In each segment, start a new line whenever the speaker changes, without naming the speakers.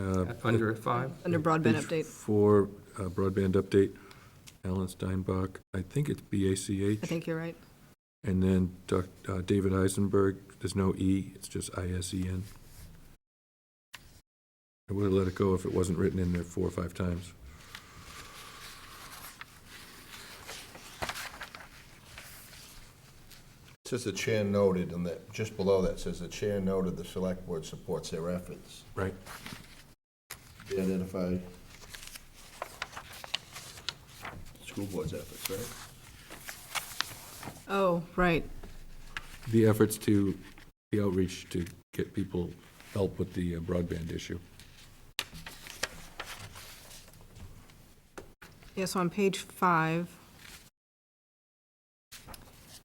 Uh,
Under five?
Under broadband
Page
update.
Four, uh, broadband update, Alan Steinbach, I think it's
I
B-A-C-H.
think you're right.
And then Doc- uh, David Eisenberg, there's no E, it's just I-S-E-N. I would have let it go if it wasn't written in there four or five times.
Says the chair noted, and that, just below that says the chair noted the select board supports their efforts.
Right.
They Identify school board's efforts, right?
Oh, right.
The efforts to, the outreach to get people help with the uh, broadband issue.
Yeah, so on page five,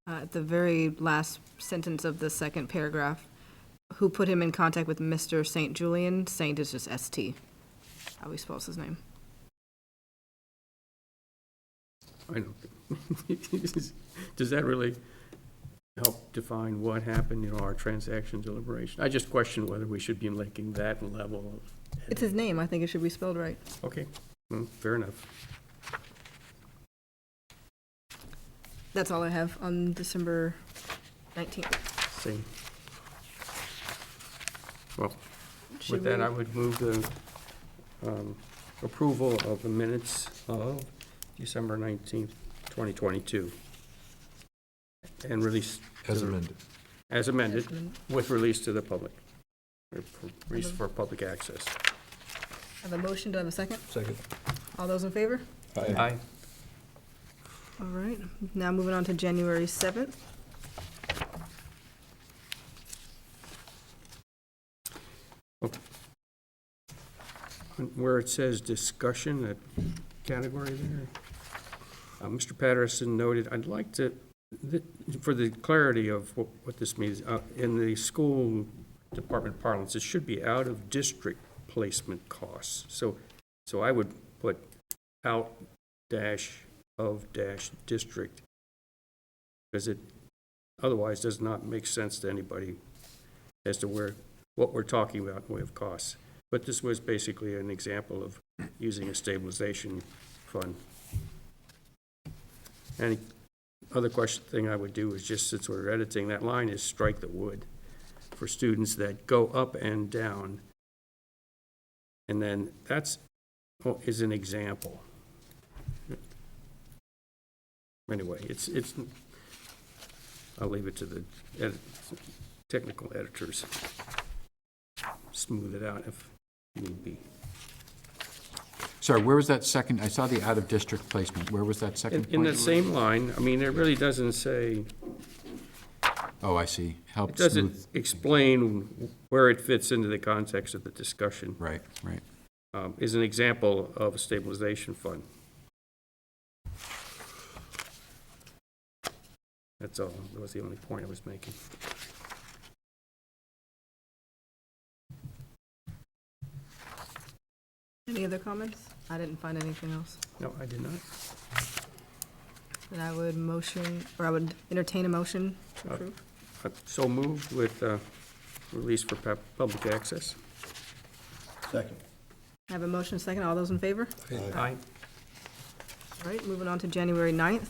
uh, at the very last sentence of the second paragraph, who put him in contact with Mr. St. Julian? Saint is just S-T, how he spells his name.
I don't, think- does that really help define what happened, you know, our transaction deliberation? I just question whether we should be making that level
It's his name, I think it should be spelled right.
of, okay, mm, fair enough.
That's all I have on December 19th.
Same. Well,
Should
with that,
we-
I would move the um, approval of the minutes of December 19th, 2022. And release. to
As
the-
amended.
As amended, with release to the public. Or for- Release for public access.
Have a motion, do I have a second?
Second.
All those in favor?
Aye.
All right, now moving on to January 7th.
Where it says discussion, that category there. Uh, Mr. Patterson noted, I'd like to, th- for the clarity of wh- what this means, uh, in the school department parlance, it should be out-of-district placement costs. So, so I would put out dash of dash district, because it otherwise does not make sense to anybody as to where, what we're talking about in way of costs. But this was basically an example of using a stabilization fund. Any other question, thing I would do is just, since we're editing that line, is strike the wood for students that go up and down. And then that's, oh, is an example. Anyway, it's, it's, I'll leave it to the edit, technical editors. Smooth it out if need be.
Sorry, where was that second, I saw the out-of-district placement, where was that
In,
second
in that
point?
same line, I mean, it really doesn't say,
Oh, I see,
it
help smooth,
doesn't explain where it fits into the context of the discussion,
right, right.
um, is an example of a stabilization fund. That's all, that was the only point I was making.
Any other comments? I didn't find anything else.
No, I did not.
Then I would motion, or I would entertain a motion to
Uh,
approve.
Uh, So moved with, uh, release for pub- public access.
Second.
I have a motion second. All those in favor?
Aye.
All right, moving on to January 9th.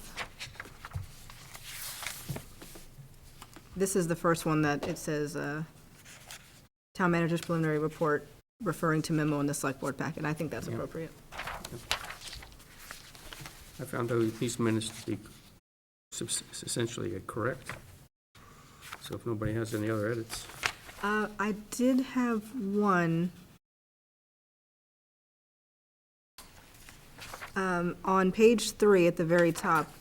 This is the first one that it says, uh, Town Manager's Preliminary Report referring to memo in the Select Board packet. I think that's
Yeah.
appropriate.
I found those- these minutes to be subs- essentially uh, correct. So if nobody has any other edits.
Uh, I did have one. Um, on page three at the very top,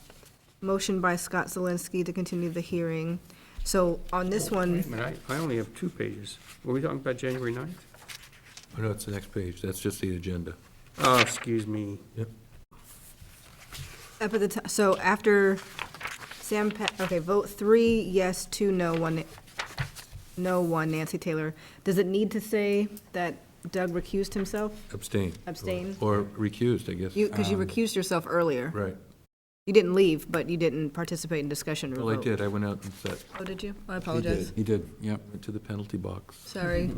motion by Scott Zelinski to continue the hearing. So on this one,
Wait a minute, I I only have two pages. Were we talking about January 9th?
Oh, no, it's the next page, that's just the agenda.
Oh, excuse me.
Yep.
up at the top, so after Sam, Pa- okay, vote three, yes, two, no, one, no, one, Nancy Taylor. Does it need to say that Doug recused himself?
Abstain.
Abstain.
Or recused, I guess.
You, because you recused yourself earlier.
Right.
You didn't leave, but you didn't participate in discussion or vote.
Well, I did, I went out and sat,
Oh, did you? I apologize.
He did, yep.
went to the penalty box.
Sorry.